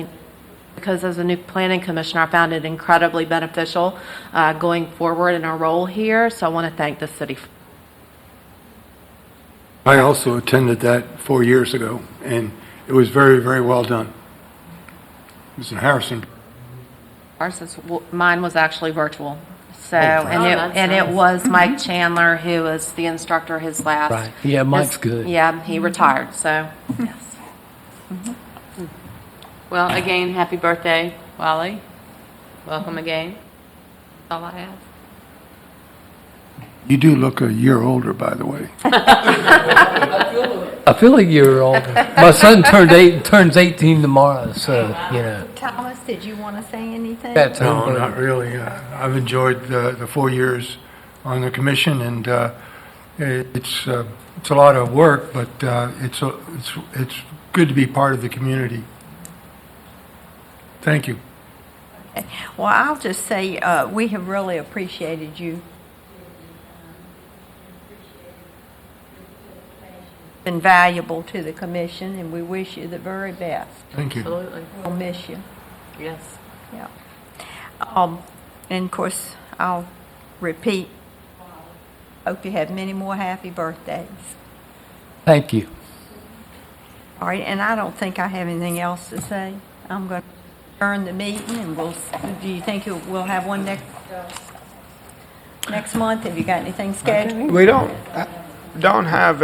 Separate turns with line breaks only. because as a new planning commissioner, I found it incredibly beneficial uh, going forward in our role here, so I want to thank the city.
I also attended that four years ago, and it was very, very well done. Mr. Harrison,
Ours is, mine was actually virtual, so,
Oh,
and it,
that's
and it
nice.
was Mike Chandler, who was the instructor, his last.
Right. Yeah, Mike's good.
Yeah, he retired, so, Mm-hmm. yes.
Well, again, happy birthday, Wally. Welcome again. That's all I have.
you do look a year older, by the way.
I feel a year older. My son turned eight, turns 18 tomorrow, so, you know.
Thomas, did you want to say anything?
That's
No, not
unbelievable.
really. Uh, I've enjoyed the, the four years on the commission, and uh, it- it's, uh, it's a lot of work, but uh, it's, a- it's, it's good to be part of the community. Thank you.
Well, I'll just say, uh, we have really appreciated you. Been valuable to the commission, and we wish you the very best.
Thank you.
Absolutely.
We'll miss you,
Yes.
yeah. Um, And of course, I'll repeat, hope you have many more happy birthdays.
Thank you.
All right, and I don't think I have anything else to say. I'm going to adjourn the meeting, and we'll, do you think you'll- we'll have one next, uh, next month? Have you got anything scheduled?
We uh, don't, don't have